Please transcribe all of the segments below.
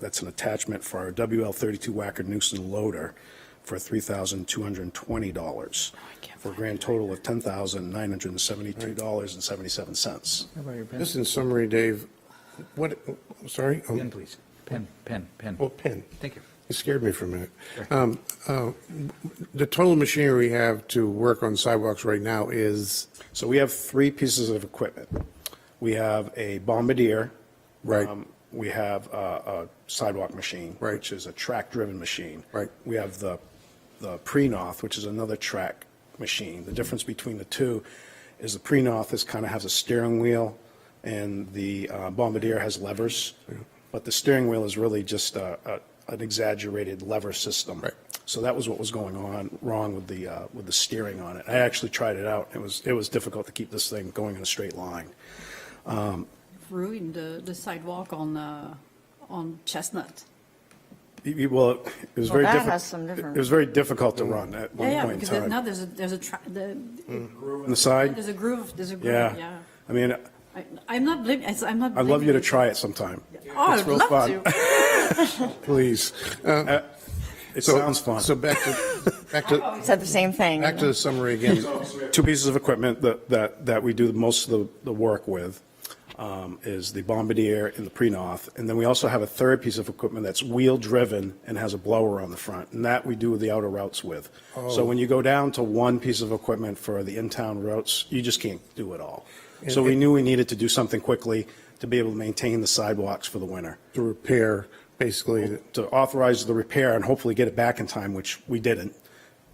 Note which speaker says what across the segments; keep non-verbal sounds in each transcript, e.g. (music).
Speaker 1: that's an attachment for our WL32 Wacker Newson loader for $3,220, for a grand total of $10,972.77.
Speaker 2: How about your pen?
Speaker 3: Just in summary, Dave, what, I'm sorry? Oh,
Speaker 2: Pen, please. Pen, pen, pen.
Speaker 3: Oh, pen.
Speaker 2: Thank you.
Speaker 3: It scared me for a minute. Um, uh, The total machinery we have to work on sidewalks right now is,
Speaker 1: So we have three pieces of equipment. We have a bombardier.
Speaker 3: Right.
Speaker 1: Um, We have a a sidewalk machine.
Speaker 3: Right.
Speaker 1: Which is a track-driven machine.
Speaker 3: Right.
Speaker 1: We have the, the pre-noth, which is another track machine. The difference between the two is the pre-noth is kind of has a steering wheel and the uh, bombardier has levers. But the steering wheel is really just a, a- an exaggerated lever system.
Speaker 3: Right.
Speaker 1: So that was what was going on, wrong with the, uh, with the steering on it. I actually tried it out. It was, it was difficult to keep this thing going in a straight line.
Speaker 4: ruined the, the sidewalk on, uh, on Chestnut.
Speaker 1: You- you- Well, it was
Speaker 5: Well,
Speaker 1: very
Speaker 5: that
Speaker 1: difficult.
Speaker 5: has some different-
Speaker 1: It was very difficult to run at one
Speaker 4: Yeah, yeah,
Speaker 1: point in
Speaker 4: because there-
Speaker 1: time.
Speaker 4: now there's a, there's a, tra- the-
Speaker 1: On the side,
Speaker 4: there's a groove, there's a groove,
Speaker 1: yeah.
Speaker 4: yeah.
Speaker 1: I mean,
Speaker 4: I- I'm not blaming, it's- I'm not.
Speaker 1: I'd love you to
Speaker 4: blaming
Speaker 1: try it sometime.
Speaker 4: Oh, I
Speaker 1: It's
Speaker 4: would
Speaker 1: real
Speaker 4: love
Speaker 1: fun.
Speaker 4: to.
Speaker 1: (laughs)
Speaker 3: please. Uh,
Speaker 1: It
Speaker 3: so-
Speaker 1: sounds fun.
Speaker 3: So back to, back to,
Speaker 5: Said the same thing.
Speaker 3: back to the summary again.
Speaker 1: Two pieces of equipment that, that, that we do most of the, the work with um, is the Bombardier and the Prenoth. And then we also have a third piece of equipment that's wheel-driven and has a blower on the front, and that we do the outer routes with.
Speaker 3: Oh.
Speaker 1: So when you go down to one piece of equipment for the in-town routes, you just can't do it all. So we knew we needed to do something quickly to be able to maintain the sidewalks for the winter,
Speaker 3: To repair, basically,
Speaker 1: to authorize the repair and hopefully get it back in time, which we didn't.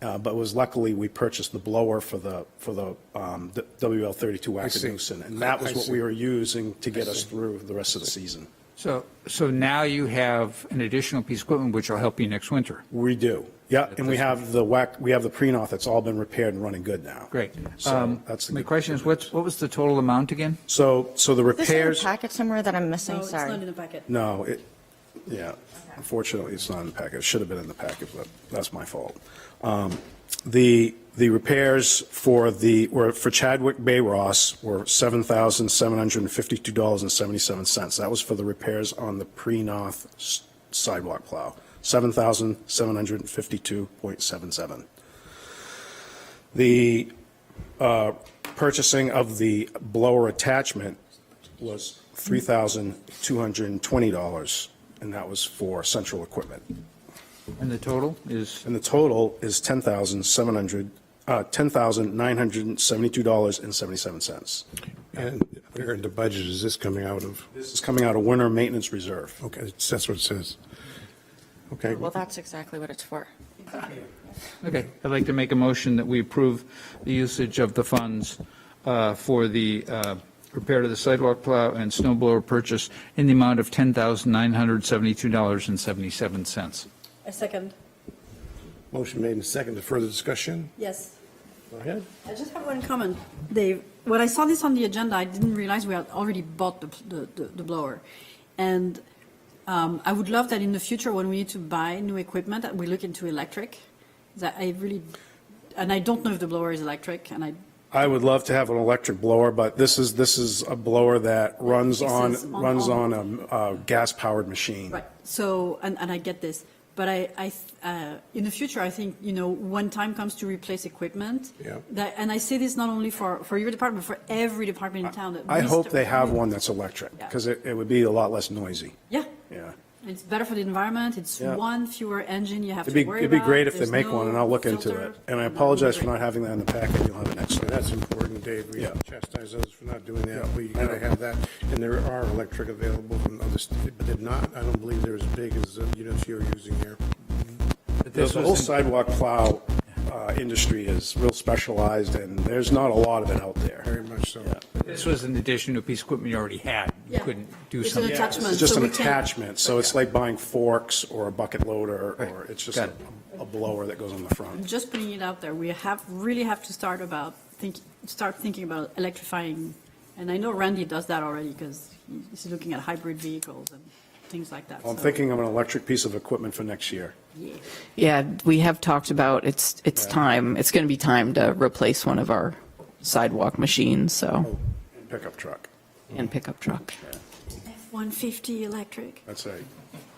Speaker 1: Uh, But was luckily, we purchased the blower for the, for the um, the WL32
Speaker 3: see.
Speaker 1: Wackadoosin. And that was
Speaker 3: I
Speaker 1: what
Speaker 3: see.
Speaker 1: we were using to get us through the rest of the season.
Speaker 2: So, so now you have an additional piece of equipment which will help you next winter.
Speaker 1: We do. Yeah, and we have the whack, we have the Prenoth that's all been repaired and running good now.
Speaker 2: Great.
Speaker 1: So
Speaker 2: Um,
Speaker 1: that's the
Speaker 2: My
Speaker 1: good-
Speaker 2: question is, what's, what was the total amount again?
Speaker 1: So, so the
Speaker 5: Is this in a
Speaker 1: repairs,
Speaker 5: packet somewhere that I'm
Speaker 4: No,
Speaker 5: missing?
Speaker 4: it's not in
Speaker 5: Sorry.
Speaker 4: the packet.
Speaker 1: no, it, yeah, unfortunately, it's not in the packet. It should have been in the packet, but that's my fault. Um, The, the repairs for the, were for Chadwick Bay Ross were $7,752.77. That was for the repairs on the Prenoth s- sidewalk plow, 7752.77 The uh, purchasing of the blower attachment was $3,220, and that was for central equipment.
Speaker 2: And the total is,
Speaker 1: And the total is $10,700, uh, $10,972.77.
Speaker 3: and where in the budget is this coming out of?
Speaker 1: This is coming out of winter maintenance reserve.
Speaker 3: Okay, it's- that's what it says. Okay,
Speaker 5: Well, that's exactly what it's for.
Speaker 2: okay, I'd like to make a motion that we approve the usage of the funds uh, for the uh, repair to the sidewalk plow and snow blower purchase in the amount of $10,972.77.
Speaker 4: A second,
Speaker 3: motion made and seconded. Further discussion?
Speaker 4: yes.
Speaker 3: Go ahead.
Speaker 4: I just have one comment, Dave. When I saw this on the agenda, I didn't realize we had already bought the, the- the, the blower. And um, I would love that in the future, when we need to buy new equipment, that we look into electric. That I really, and I don't know if the blower is electric, and I,
Speaker 1: I would love to have an electric blower, but this is, this is a blower that runs on,
Speaker 4: Pieces on-
Speaker 1: runs on
Speaker 4: on-
Speaker 1: a uh, gas-powered machine.
Speaker 4: right, so, and, and I get this. But I, I, uh, in the future, I think, you know, when time comes to replace equipment.
Speaker 3: Yeah.
Speaker 4: That, and I say this not only for, for your department, but for every department in town. that
Speaker 1: I
Speaker 4: we
Speaker 1: hope
Speaker 4: start-
Speaker 1: they have one that's electric,
Speaker 4: Yeah.
Speaker 1: because it, it would be a lot less noisy.
Speaker 4: Yeah.
Speaker 1: Yeah.
Speaker 4: It's better for the environment, it's
Speaker 1: Yeah.
Speaker 4: one fewer engine you have to
Speaker 1: It'd be,
Speaker 4: worry about.
Speaker 1: it'd be great if they
Speaker 4: There's
Speaker 1: make one,
Speaker 4: no
Speaker 1: and I'll look into
Speaker 4: filter.
Speaker 1: it. And I
Speaker 4: That would be
Speaker 1: apologize for
Speaker 4: great.
Speaker 1: not having that in the packet, you'll have it next
Speaker 3: So
Speaker 1: time.
Speaker 3: That's important, Dave. We
Speaker 1: Yeah.
Speaker 3: chastise others for not doing that.
Speaker 1: Yeah.
Speaker 3: We gotta have that. And there are electric available from other states, but they're not, I don't believe they're as big as uh, the units you're using here.
Speaker 1: The the whole sidewalk plow uh, industry is real specialized, and there's not a lot of it out there.
Speaker 3: Very much so.
Speaker 2: This was in addition to a piece of equipment you already had. You
Speaker 4: Yeah.
Speaker 2: couldn't do
Speaker 4: It's an
Speaker 2: something.
Speaker 4: attachment.
Speaker 1: It's just an
Speaker 4: so we can-
Speaker 1: attachment, so it's like buying forks or a bucket loader, or
Speaker 2: Right.
Speaker 1: it's just
Speaker 2: Got
Speaker 1: a a blower that goes on the front.
Speaker 4: Just putting it out there, we have, really have to start about, think, start thinking about electrifying. And I know Randy does that already, because he's looking at hybrid vehicles and things like that.
Speaker 1: I'm
Speaker 4: so-
Speaker 1: thinking of an electric piece of equipment for next year.
Speaker 4: Yeah.
Speaker 6: Yeah, we have talked about it's, it's time, it's going to be time to replace one of our sidewalk machines, so,
Speaker 1: Pickup truck,
Speaker 6: and pickup truck.
Speaker 4: F-150 electric.
Speaker 1: that's right.